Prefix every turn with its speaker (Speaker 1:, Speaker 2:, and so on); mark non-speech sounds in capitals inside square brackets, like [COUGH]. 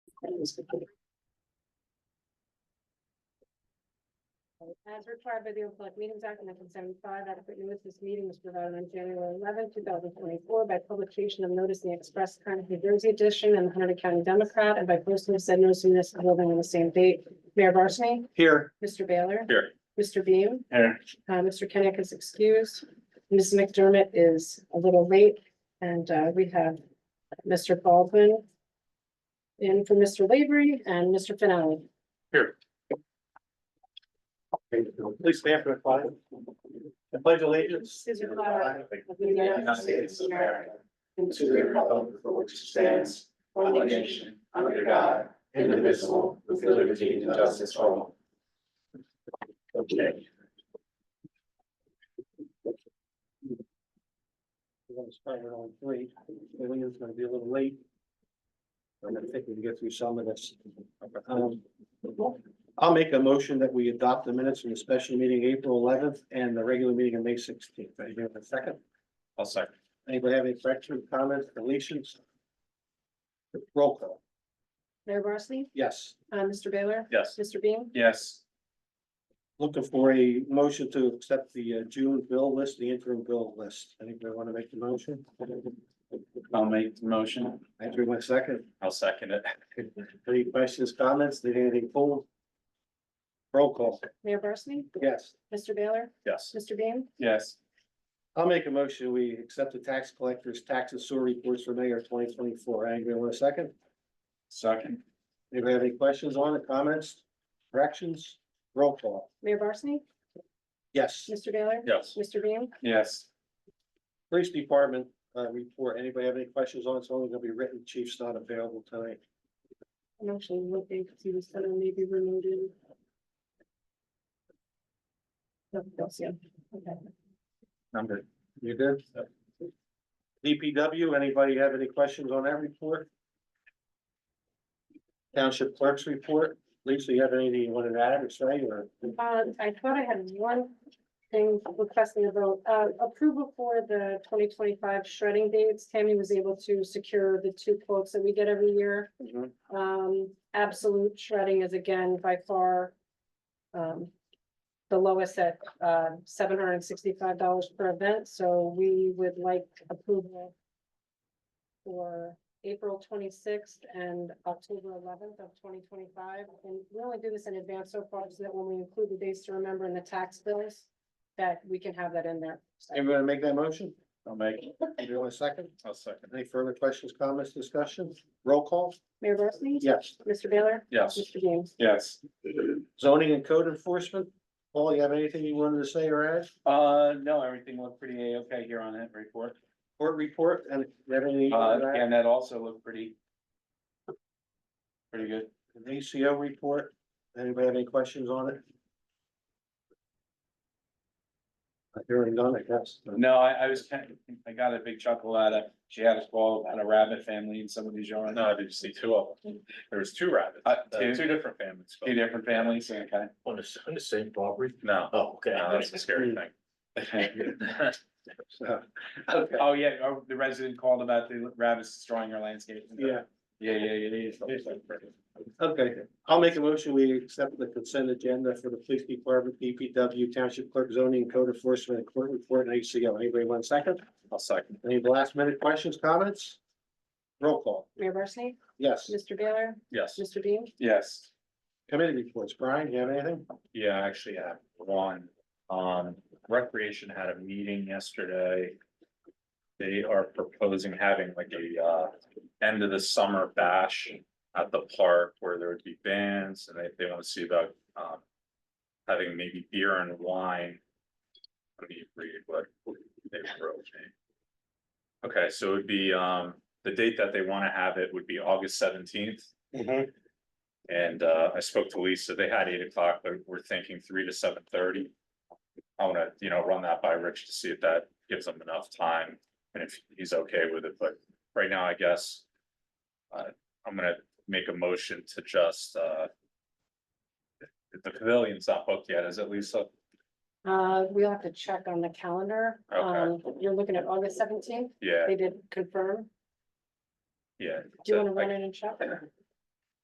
Speaker 1: was completed.
Speaker 2: As required by the Open Public Meetings Act of nineteen seventy-five, adequate notice of this meeting was provided on January 11, thousand twenty-four by publication of notice in the Express Current New Jersey edition and the Hunter County Democrat and by posting said notice in this building on the same date. Mayor Barsney?
Speaker 1: Here.
Speaker 2: Mr. Baylor?
Speaker 1: Here.
Speaker 2: Mr. Beam?
Speaker 1: Here.
Speaker 2: Uh, Mr. Kenick is excused. Ms. McDermott is a little late and, uh, we have Mr. Baldwin in for Mr. Labry and Mr. Finale.
Speaker 1: Please stand for the flag. I pledge allegiance.
Speaker 2: To the flag
Speaker 1: To
Speaker 2: of the United States of America and to the republic
Speaker 1: for which stands one nation, under God, indivisible, with liberty and justice for all. Okay. We're gonna start at on three. William's gonna be a little late. I'm gonna think we can get through some of this. Um, I'll make a motion that we adopt the minutes from the special meeting April eleventh and the regular meeting on May sixteenth. Anybody have a second? I'll second. Anybody have any questions, comments, deletions? Roll call.
Speaker 2: Mayor Barsney?
Speaker 1: Yes.
Speaker 2: Uh, Mr. Baylor?
Speaker 1: Yes.
Speaker 2: Mr. Beam?
Speaker 1: Yes. Looking for a motion to accept the uh, June bill list, the interim bill list. Anybody want to make the motion?
Speaker 3: I'll make the motion.
Speaker 1: Andrew, one second.
Speaker 3: I'll second it.
Speaker 1: Any questions, comments? Did anything pull? Roll call.
Speaker 2: Mayor Barsney?
Speaker 1: Yes.
Speaker 2: Mr. Baylor?
Speaker 3: Yes.
Speaker 2: Mr. Beam?
Speaker 3: Yes.
Speaker 1: I'll make a motion. We accept the tax collector's tax and sewer reports for May of twenty twenty-four. Andrew, one second.
Speaker 3: Second.
Speaker 1: Anybody have any questions on it, comments, corrections? Roll call.
Speaker 2: Mayor Barsney?
Speaker 1: Yes.
Speaker 2: Mr. Baylor?
Speaker 3: Yes.
Speaker 2: Mr. Beam?
Speaker 3: Yes.
Speaker 1: Police Department, uh, report. Anybody have any questions on it? It's only gonna be written. Chief's not available tonight.
Speaker 2: I'm actually looking to see if someone may be removed. No, don't see him. Okay.
Speaker 3: Number.
Speaker 1: You good? DPW, anybody have any questions on that report? Township clerk's report. Lisa, you have anything you wanted to add or say or?
Speaker 2: Uh, I thought I had one thing requesting a vote, uh, approval for the twenty twenty-five shredding dates. Tammy was able to secure the two quotes that we get every year. Um, absolute shredding is again by far. Um. The lowest at uh seven hundred and sixty-five dollars per event, so we would like approval. For April twenty-sixth and October eleventh of twenty twenty-five, and we only do this in advance so far, so that when we include the dates to remember in the tax bills. That we can have that in there. So,
Speaker 1: Everyone make that motion?
Speaker 3: I'll make. it.
Speaker 1: Andrew, want a second?
Speaker 3: I'll second.
Speaker 1: Any further questions, comments, discussion? Roll call?
Speaker 2: Mayor Barsney?
Speaker 1: Yes.
Speaker 2: Mr. Baylor?
Speaker 3: Yes.
Speaker 2: Mr. James?
Speaker 3: Yes.
Speaker 1: Zoning and code enforcement. Paul, you have anything you wanted to say or add?
Speaker 3: Uh, no, everything looked pretty A-okay here on that report.
Speaker 1: Court report and you have anything? you
Speaker 3: Uh,
Speaker 1: wanted to add?
Speaker 3: and that also looked pretty. Pretty good.
Speaker 1: An ACO report. Anybody have any questions on it? Not Hearing none, I guess.
Speaker 3: No, I, I was, kind of- I got a big chuckle out of, she had a call about a rabbit family in somebody's yard.
Speaker 4: No, I did see two of them. There was two rabbits,
Speaker 3: Uh,
Speaker 4: uh,
Speaker 3: two?
Speaker 4: two different families.
Speaker 3: Two different families, okay.
Speaker 4: On the, on the same property? No. Oh, okay. No, that's a scary
Speaker 3: [LAUGHS]
Speaker 4: thing. [LAUGHS]
Speaker 1: So, Okay,
Speaker 3: Oh, yeah, oh, the resident called about the rabbits destroying her landscape.
Speaker 1: yeah,
Speaker 3: Yeah, yeah, yeah, yeah.
Speaker 1: okay. I'll make a motion. We accept the consent agenda for the police department, DPW, township clerk, zoning, code enforcement, and court report, and ACO. Anybody one second?
Speaker 4: I'll second.
Speaker 1: Any last minute questions, comments? Roll call.
Speaker 2: Mayor Barsney?
Speaker 1: Yes.
Speaker 2: Mr. Baylor?
Speaker 4: Yes,
Speaker 2: Mr. Beam?
Speaker 3: Yes.
Speaker 1: Committee reports. Brian, you have anything?
Speaker 4: yeah, I actually have one. Um, Recreation had a meeting yesterday. They are proposing having like a, uh, end of the summer bash at the park where there would be bands and they, they want to see about, um, having maybe beer and wine. Let me read what they wrote me. Okay, so it would be, um, the date that they want to have it would be August seventeenth. And uh, I spoke to Lisa, they had eight o'clock, but we're thinking three to seven thirty. I wanna, you know, run that by Rich to see if that gives him enough time and if he's okay with it, but right now, I guess. Uh, I'm gonna make a motion to just uh. if The pavilion's not booked yet, is it Lisa?
Speaker 2: Uh, we'll have to check on the calendar.
Speaker 4: Okay.
Speaker 2: Um, you're looking at August seventeenth.
Speaker 4: Yeah,
Speaker 2: They did confirm.
Speaker 4: yeah.
Speaker 2: Do you
Speaker 4: so
Speaker 2: want to
Speaker 4: I-
Speaker 2: run in and check?